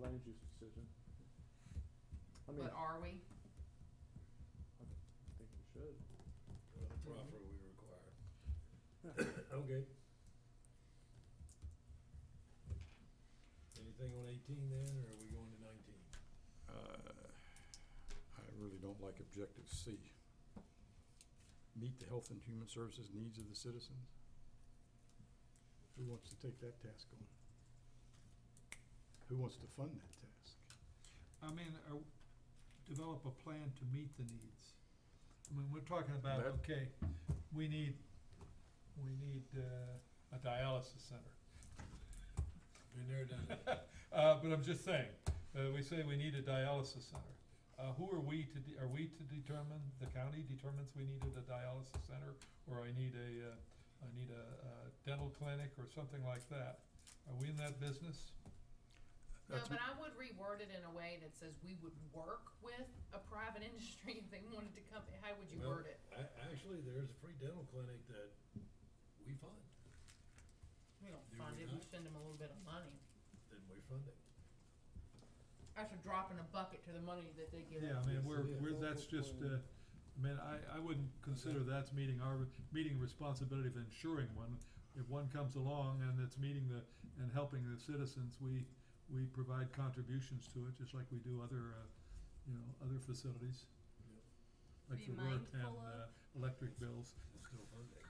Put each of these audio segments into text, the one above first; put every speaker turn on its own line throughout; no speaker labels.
manager's decision. I mean,
But
I
are we?
think we should.
Well, the proffer we require.
Okay. Anything on eighteen then, or are we going to nineteen?
Uh, I really don't like objective C. Meet the health and human services needs of the citizens. Who wants to take that task on? Who wants to fund that task?
I mean, uh, develop a plan to meet the needs. I mean, we're talking about,
That-
okay, we need, we need, uh, a dialysis center.
Been there, done that.
Uh, but I'm just saying, uh, we say we need a dialysis center. Uh, who are we to, de- are we to determine, the county determines we needed a dialysis center, or I need a, uh, I need a, uh dental clinic or something like that? Are we in that business?
No,
That's
but I would reword it in a way that says we would work with a private industry if they wanted to come, how would you
Well,
word it?
A- actually, there's a free dental clinic that we fund,
We don't
do
fund
we
it, we
not?
send them a little bit of money.
then we fund it.
That's a drop in a bucket to the money that they give.
Yeah, I mean,
Yes,
we're,
yeah.
we're, that's just, uh, I mean, I, I wouldn't consider that's meeting our, meeting responsibility of ensuring one. If one comes along and it's meeting the, and helping the citizens, we, we provide contributions to it, just like we do other, uh, you know, other facilities.
Yep.
Like
Be
the work and,
mindful of-
uh, electric bills.
It's still funded.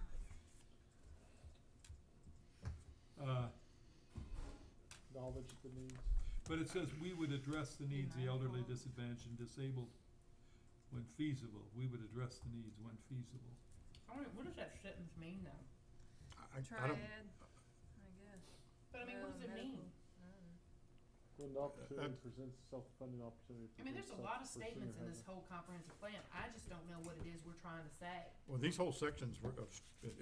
Uh,
Knowledge of the needs.
But it says we would address the needs of the elderly,
mindful.
disadvantaged, and disabled when feasible. We would address the needs when feasible.
I mean, what does that sentence mean though?
I, I- I don't,
Triad, I guess.
But I mean, what does it
Medical,
mean?
I don't know.
When the opportunity presents itself, funding opportunity.
I mean, there's a
presents
lot of
itself for senior
statements in this
housing.
whole comprehensive plan, I just don't know what it is we're trying to say.
well, these whole sections were of,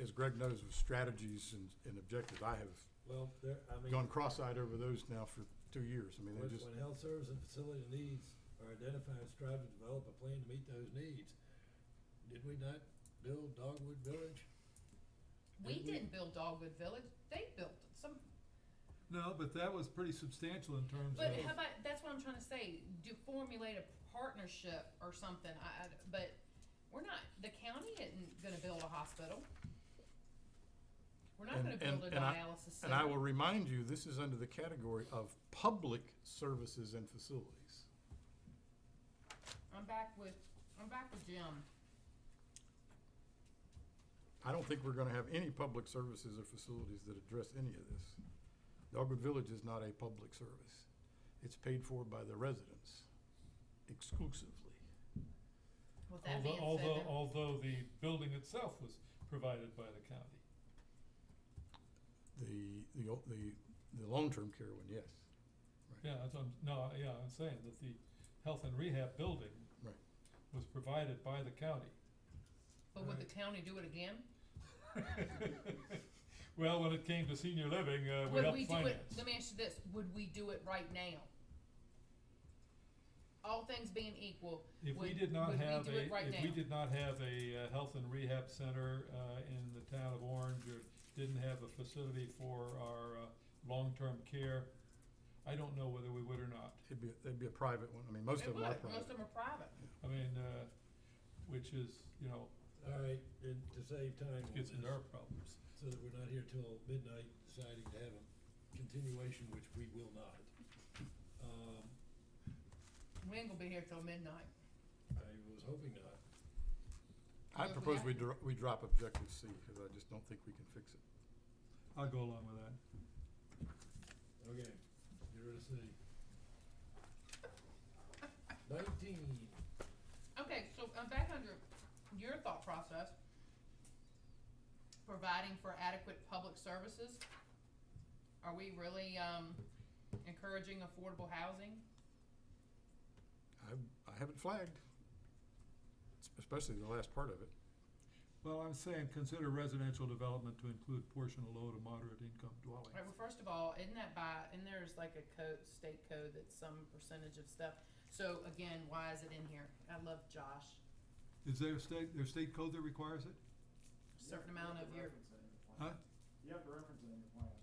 as Greg knows, of strategies and, and objectives. I have
Well, there, I mean,
gone cross-eyed over those now for two years. I mean,
when,
they just,
when health service and facility needs are identified, strive to develop a plan to meet those needs. Did we not build Dogwood Village?
We
Did we-
didn't build Dogwood Village, they built it, some,
No, but that was pretty substantial in terms of.
But how about, that's what I'm trying to say, do formulate a partnership or something, I, I, but we're not, the county isn't gonna build a hospital. We're not
And-
gonna build
and-
a
and I-
dialysis center.
and I will remind you, this is under the category of public services and facilities.
I'm back with, I'm back with Jim,
I don't think we're gonna have any public services or facilities that address any of this. Dogwood Village is not a public service. It's paid for by the residents exclusively.
with that being
Although, although,
said. then-
although the building itself was provided by the county.
The, the, o- the, the long-term care one, yes.
Yeah, that's, what I'm, no, yeah, I'm saying that the health and rehab building
Right.
was provided by the county.
But would the county do it again?
Well, when it came to senior living, uh, we
Would
helped
we do it,
finance.
let me ask you this, would we do it right now? All things being equal,
If we
would-
did not
would we
have
do
a,
it right
if we
now?
did not have a, uh, health and rehab center, uh, in the town of Orange, or didn't have a facility for our, uh, long-term care, I don't know whether we would or not.
It'd be, it'd be a private one. I mean, most
it
of
would,
them are
most of
private.
them are private.
I mean, uh, which is, you know,
All right, and to save time on
gets
this,
into our problems.
so that we're not here till midnight deciding to have a continuation, which we will not. Um,
We ain't gonna be here till midnight.
I was hoping not.
I
Yeah,
propose
yeah.
we dro- we drop objective C, cause I just don't think we can fix it.
I'll go along with that.
Okay, get rid of C. Nineteen,
Okay, so I'm back under your thought process. Providing for adequate public services. Are we really, um, encouraging affordable housing?
I, I have it flagged, es- especially the last part of it.
Well, I'm saying consider residential development to include portion of low to moderate income dwellings.
Right, well, first of all, isn't that by, and there's like a code, state code that's some percentage of stuff. So again, why is it in here? I love Josh.
Is there a state, there's state code that requires it?
Certain amount of your,
Huh?
You have to reference it in your plan.